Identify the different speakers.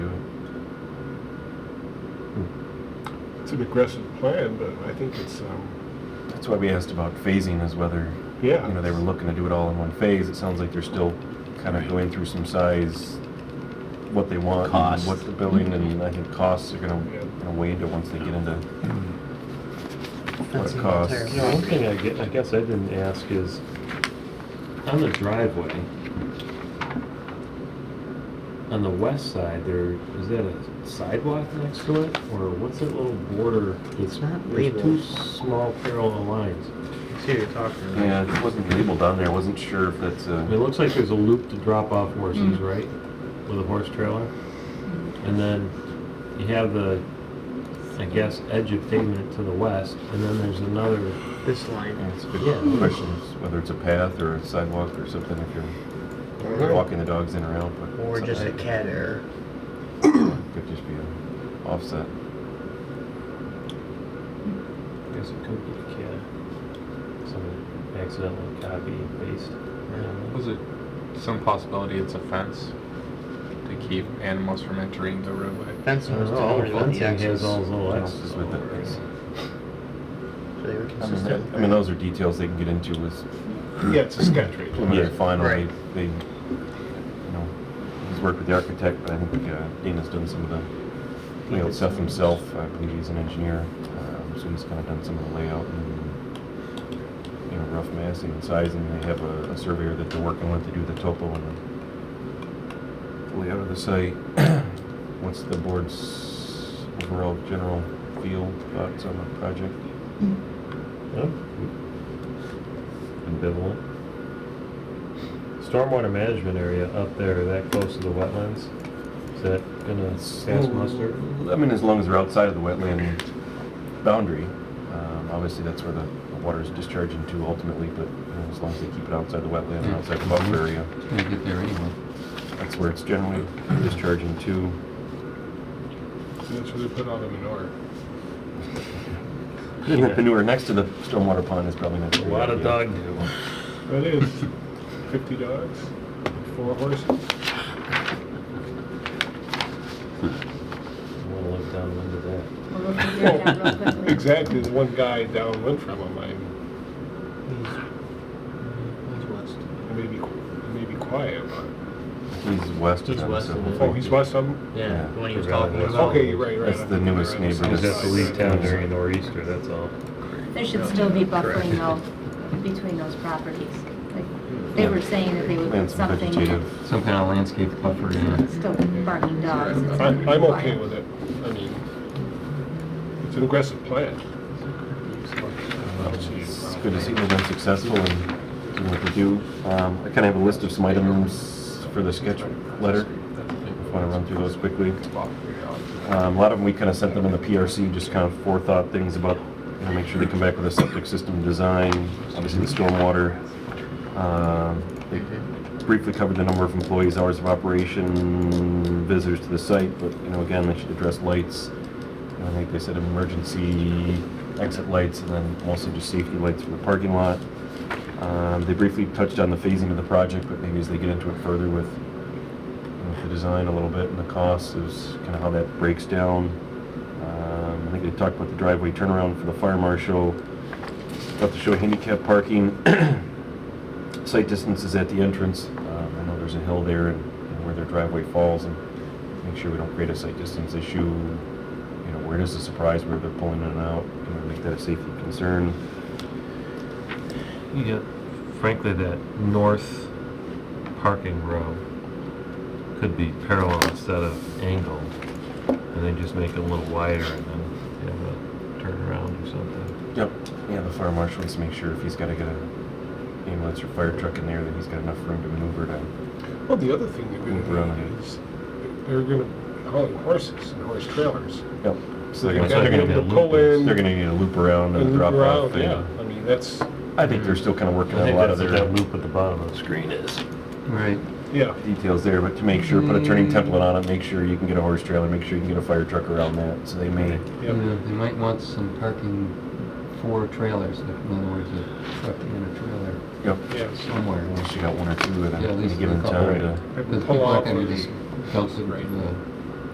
Speaker 1: it's an aggressive plan, but I think it's, um,
Speaker 2: That's why we asked about phasing is whether, you
Speaker 1: yeah.
Speaker 2: know, they were looking to do it all in one phase. It sounds like they're still kind of going through some size, what they want, and
Speaker 3: Cost.
Speaker 2: what the building,
Speaker 4: Mm-hmm.
Speaker 2: and I think costs are gonna,
Speaker 1: Yeah.
Speaker 2: gonna weigh into once they get into what
Speaker 5: That's
Speaker 2: it
Speaker 5: an
Speaker 2: costs.
Speaker 5: entire-
Speaker 4: Yeah, one thing I gue- I guess I didn't ask is, on the driveway, on the west side, there, is that a sidewalk next to it, or what's that little border? It's
Speaker 5: not
Speaker 4: There's
Speaker 5: labeled.
Speaker 4: two small parallel lines.
Speaker 5: See, you're talking about.
Speaker 2: Yeah, it wasn't labeled on there. I wasn't sure if that's
Speaker 4: I
Speaker 2: a.
Speaker 4: mean, It looks like there's a loop to drop off horses, right, with a horse trailer? And then you have the, I guess, edge of pavement to the west, and then there's another,
Speaker 5: This line.
Speaker 2: It's a good
Speaker 4: Yeah.
Speaker 2: question, is whether it's a path or a sidewalk or something, if you're walking the dogs in or out, but.
Speaker 5: Uh-huh. Or just a cat error.
Speaker 2: Could just be an offset.
Speaker 4: I guess it could be a kid. Someone accidentally copy and paste.
Speaker 6: Was it some possibility it's a fence to keep animals from entering the roadway?
Speaker 5: Fence was delivered with the
Speaker 4: has
Speaker 5: axles.
Speaker 4: all
Speaker 5: So
Speaker 4: his little
Speaker 2: Fence
Speaker 4: X's
Speaker 2: is with
Speaker 4: all
Speaker 2: the-
Speaker 4: over it.
Speaker 5: they were
Speaker 2: I mean,
Speaker 5: consistent.
Speaker 2: that- I mean, those are details they can get into with,
Speaker 1: Yeah, it's a sketch rate.
Speaker 2: when they're final, they,
Speaker 5: Right.
Speaker 2: they, you know, he's worked with the architect, but I think uh, Dana's done some of the layout stuff himself. I believe he's an engineer, um, so he's kind of done some of the layout and, you know, rough massing and sizing. They have a a surveyor that they're working with to do the topo and the layout of the site. What's the board's overall general feel, thoughts on the project?
Speaker 4: Ambivalent. Stormwater management area up there, that close to the wetlands, is that gonna pass muster?
Speaker 2: I mean, as long as they're outside of the wetland boundary, um, obviously that's where the the water is discharged into ultimately, but you know, as long as they keep it outside the wetland and outside the buffer area,
Speaker 3: It's gonna get there anyway.
Speaker 2: that's where it's generally discharging to.
Speaker 1: So that's where they put all the manure.
Speaker 2: Putting the manure next to the stormwater pond is probably not.
Speaker 4: A lot of dog do.
Speaker 1: That is fifty dogs, four horses.
Speaker 4: Wanna look downwind of that.
Speaker 7: We'll look into it now real quickly.
Speaker 1: Exactly, the one guy downwind from him, I,
Speaker 5: He's west.
Speaker 1: I may be, I may be quiet, but,
Speaker 2: He's west of
Speaker 5: He's
Speaker 2: them,
Speaker 5: west
Speaker 2: so
Speaker 5: of it.
Speaker 2: hopefully-
Speaker 1: oh, he's west of him?
Speaker 5: Yeah, the one he was
Speaker 4: Forgot
Speaker 5: talking
Speaker 4: about it.
Speaker 5: about.
Speaker 1: Okay, you're right, you're right.
Speaker 2: That's the newest neighbor.
Speaker 4: You
Speaker 2: Just
Speaker 4: just have to leave town during nor'easter, that's all.
Speaker 7: There should still be buffering
Speaker 6: Correct.
Speaker 7: though, between those properties. Like, They were saying that they would
Speaker 2: And
Speaker 7: put
Speaker 2: some
Speaker 7: something,
Speaker 2: vegetative.
Speaker 3: Some kind of landscape buffer, yeah.
Speaker 7: still barking dogs. It's
Speaker 1: I,
Speaker 7: gonna be
Speaker 1: I'm okay
Speaker 7: quiet.
Speaker 1: with it, I mean, it's an aggressive plan.
Speaker 2: It's good to see they've been successful in doing what they do. Um, I kind of have a list of some items for the sketch letter. If I want to run through those quickly. Um, A lot of them, we kind of sent them in the PRC, just kind of forethought things about, you know, make sure they come back with a septic system design, obviously the stormwater. Um, They briefly covered the number of employees, hours of operation, visitors to the site, but, you know, again, they should address lights. And I think they said emergency exit lights and then also just safety lights for the parking lot. Um, They briefly touched on the phasing of the project, but maybe as they get into it further with with the design a little bit and the costs is kind of how that breaks down. Um, I think they talked about the driveway turnaround for the fire marshal, about to show handicap parking, site distances at the entrance. Um, I know there's a hill there and and where their driveway falls and make sure we don't create a site distance issue. You know, where it is a surprise where they're pulling in and out, you know, make that a safety concern.
Speaker 4: You get, frankly, that north parking row could be parallel instead of angled, and then just make it a little wider and then have a turnaround or something.
Speaker 2: Yep. Yeah, the fire marshal needs to make sure if he's got to get a ambulance or fire truck in there, that he's got enough room to maneuver to
Speaker 1: Well, the other thing they're gonna
Speaker 2: Right.
Speaker 1: do is, they're gonna haul horses and horse trailers.
Speaker 2: Yep. So they're gonna,
Speaker 1: They're
Speaker 4: That's why
Speaker 2: they're
Speaker 1: gonna
Speaker 2: gonna,
Speaker 1: be
Speaker 4: be a
Speaker 1: able to pull
Speaker 4: loop.
Speaker 1: in
Speaker 2: they're gonna need a loop around and a
Speaker 1: and loop
Speaker 2: drop off.
Speaker 1: around,
Speaker 2: thing.
Speaker 1: yeah, I mean, that's,
Speaker 2: I think they're still kind of working
Speaker 4: I
Speaker 2: on a
Speaker 4: think
Speaker 2: lot of
Speaker 4: that's what
Speaker 2: their
Speaker 4: that loop at the bottom of the screen is.
Speaker 3: Right.
Speaker 1: yeah.
Speaker 2: details there, but to make sure, put a turning template on it, make sure you can get a horse trailer, make sure you can get a fire truck around that. So they may,
Speaker 3: You
Speaker 1: yeah.
Speaker 3: know, They might want some parking for trailers, like in other words, a truck and a trailer
Speaker 2: yep.
Speaker 1: Yeah,
Speaker 3: somewhere.
Speaker 2: Unless you got one or two of
Speaker 3: Yeah, at
Speaker 2: them,
Speaker 3: least
Speaker 2: give
Speaker 3: a
Speaker 2: them
Speaker 3: couple.
Speaker 2: time to.
Speaker 1: Have them
Speaker 3: Because
Speaker 1: pull
Speaker 3: people are
Speaker 1: off
Speaker 3: gonna
Speaker 1: and
Speaker 3: be
Speaker 1: just-
Speaker 3: belted,
Speaker 1: Right.
Speaker 3: uh,